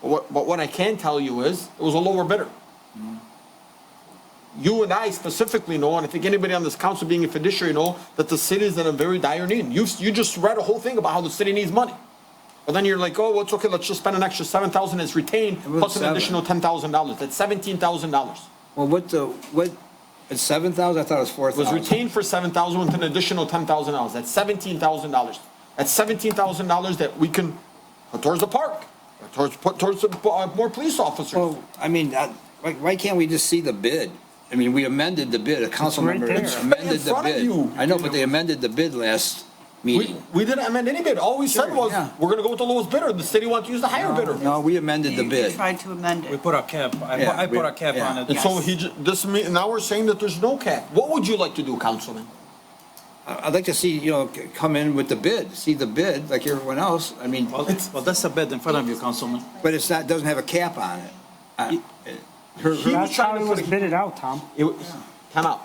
What, but what I can tell you is, it was a lower bidder. Mm-hmm. You and I specifically know, and I think anybody on this council being a fiduciary know, that the city is in a very dire need. You, you just read a whole thing about how the city needs money. But then you're like, oh, well, it's okay, let's just spend an extra seven thousand as retained, was plus an seven. additional ten thousand dollars, that's seventeen thousand dollars. Well, what the, what, it's seven thousand? I thought it was four It was thousand. retained for seven thousand with an additional ten thousand dollars, that's seventeen thousand dollars. That's seventeen thousand dollars that we can put towards the park, or towards, put towards the, uh, more police officers. Well, I mean, I- why, why can't we just see the bid? I mean, we amended the bid, a council right member there. It's right in amended the front of bid. you. I know, but they amended the bid last We, meeting. we didn't amend any bid, all we said Sure, was, yeah. we're gonna go with the lowest bidder, the city wants to use the higher bidder. No, we amended the You bid. Tried to amend We it. put a cap, I, put- Yeah, I put we- a cap yeah. on And it. so he, ju- this, me- now we're saying that there's no cap, what would you like to do, councilman? I- I'd like to see, you know, c- come in with the bid, see the bid like everyone else. I mean, Well, well, that's a bid in front of you, Councilman. but it's not, doesn't have a cap on it. I- her- He was her- That's trying how to it put was a- bidded out, Tom. It was, time out.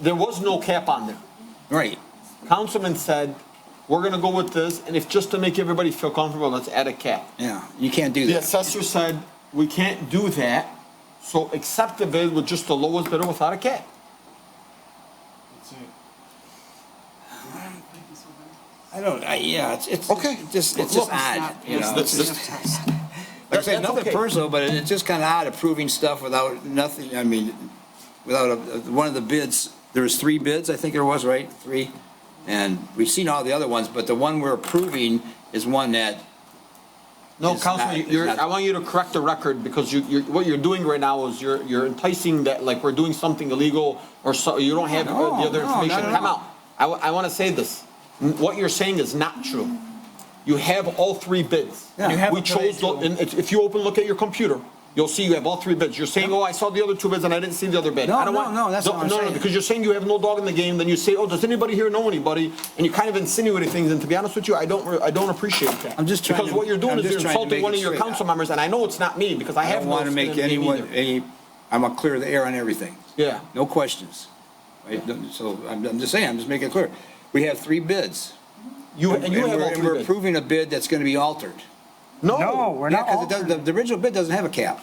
There was no cap on there. Right. Councilman said, we're gonna go with this, and if, just to make everybody feel comfortable, let's add a cap. Yeah, you can't do The that. assessor said, we can't do that, so accept the bid with just the lowest bidder without a cap. I don't, I, yeah, it's, it's. Okay. it's Just, it's Look, just odd, you know? This- it's this- just- Like I said, That's nothing okay. personal, but it- it's just kind of odd approving stuff without nothing, I mean, without, a- a- one of the bids, there was three bids, I think there was, right? Three? And we've seen all the other ones, but the one we're approving is one that, No, It's not- Councilman, it's you're, not- I want you to correct the record, because you, you're, what you're doing right now is you're, you're enticing that, like, we're doing something illegal, or so, you don't have the No, the other no, not information. at Come all. out. I, wa- I wanna say this, N- what you're saying is not true. You have all three bids. Yeah. You have We them today, chose, the- too. and if, if you open, look at your computer, you'll see you have all three bids. You're saying, oh, I saw the other two bids and I didn't see the other bid. No, I don't no, want- no, that's not what I'm no, no, saying. Because you're saying you have no dog in the game, then you say, oh, does anybody here know anybody? And you kind of insinuating things, and to be honest with you, I don't, re- I don't appreciate that. I'm just trying Because to- what you're doing I'm is just you're trying to insulting make one it of your straight. council members, and I know it's not me, because I I have don't no. want to skin in make the game anyone, either. any, I'm gonna clear the air on everything. Yeah. No questions. Right? So I'm, I'm just saying, I'm just making it clear. We have three bids. You, and you have we're- all and three we're bids. approving a bid that's gonna be altered. No, we're Yeah, not 'cause it does- altering. the, the original bid doesn't have a cap.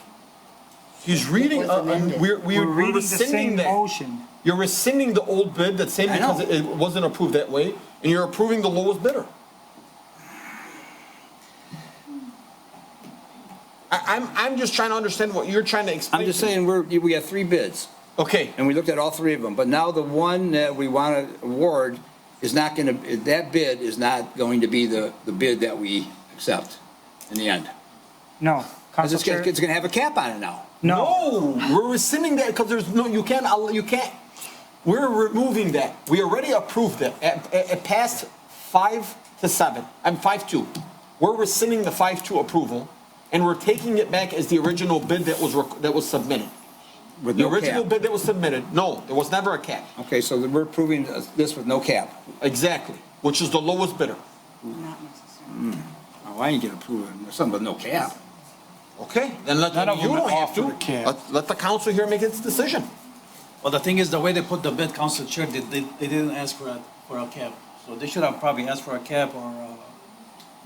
He's reading, uh, um, we're, We're we're reading the rescinding same that. motion. You're rescinding the old bid that's same I know. because it- it wasn't approved that way, and you're approving the lowest bidder. I, I'm, I'm just trying to understand what you're trying to explain. I'm just to me. saying, we're, we have three bids, Okay, and we looked at all three of them, but now the one that we want to award is not going to, that bid is not going to be the, the bid that we accept in the end. No, 'Cause Council it's going Chair, to have a cap on it now. no. no, we're rescinding that because there's no, you can't, al- you can't. We're removing that. We already approved it. It, it- it passed five to seven, I'm five two. We're rescinding the five two approval and we're taking it back as the original bid that was, rec- that was submitted. With The no original cap. bid that was submitted, no, there was never a cap. Okay, so we're approving this with no cap. Exactly, which is the lowest bidder. Not necessarily. Oh, I ain't going to approve it, something with no cap. Okay, then let, None of you them don't have to. offered a cap. Let, let the council here make its decision. Well, the thing is, the way they put the bid, Council Chair, they, they, they didn't ask for a, for a cap. So they should have probably asked for a cap or, uh.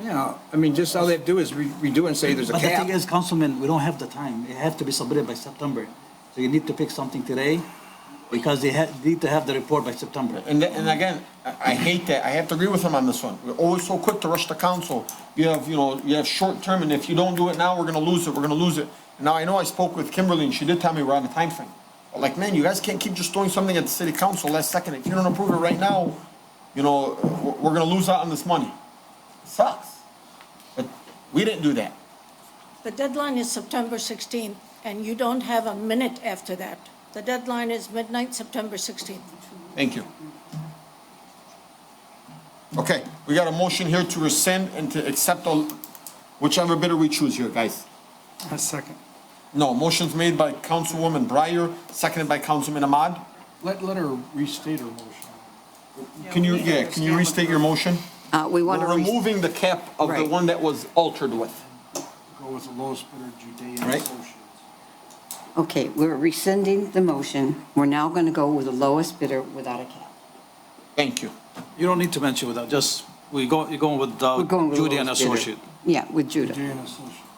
Yeah, I mean, just all they have to do is re- redo it and say there's a But the cap. thing is, Councilman, we don't have the time. It have to be submitted by September. So you need to pick something today because they ha need to have the report by September. And, th- and again, I I hate that, I have to agree with him on this one. We're always so quick to rush the council. You have, you know, you have short term, and if you don't do it now, we're gonna lose it, we're gonna lose it. Now, I know I spoke with Kimberly, and she did tell me we're on a time frame. But like, man, you guys can't keep just throwing something at the city council last second. If you don't approve it right now, you know, we're, we're gonna lose out on this money. Sucks. But we didn't do that. The deadline is September 16th, and you don't have a minute after that. The deadline is midnight, September 16th. Thank you. Okay, we got a motion here to rescind and to accept all- whichever bidder we choose here, guys. A second. No, motion's made by Councilwoman Breyer, seconded by Councilman Ahmad. Let, let her restate her motion. Can you, yeah, can you restate your motion? Uh, We want to. We're removing the cap of the Right. one that was altered with. Go with the lowest bidder, Judean Right. Associates. Okay, we're rescinding the motion. We're now going to go with the lowest bidder without a cap. Thank you. You don't need to mention without, just, we go, you're going with, uh, We're going with the Judy and lowest bidder. Associate. Yeah, with Judah. Judean Associates.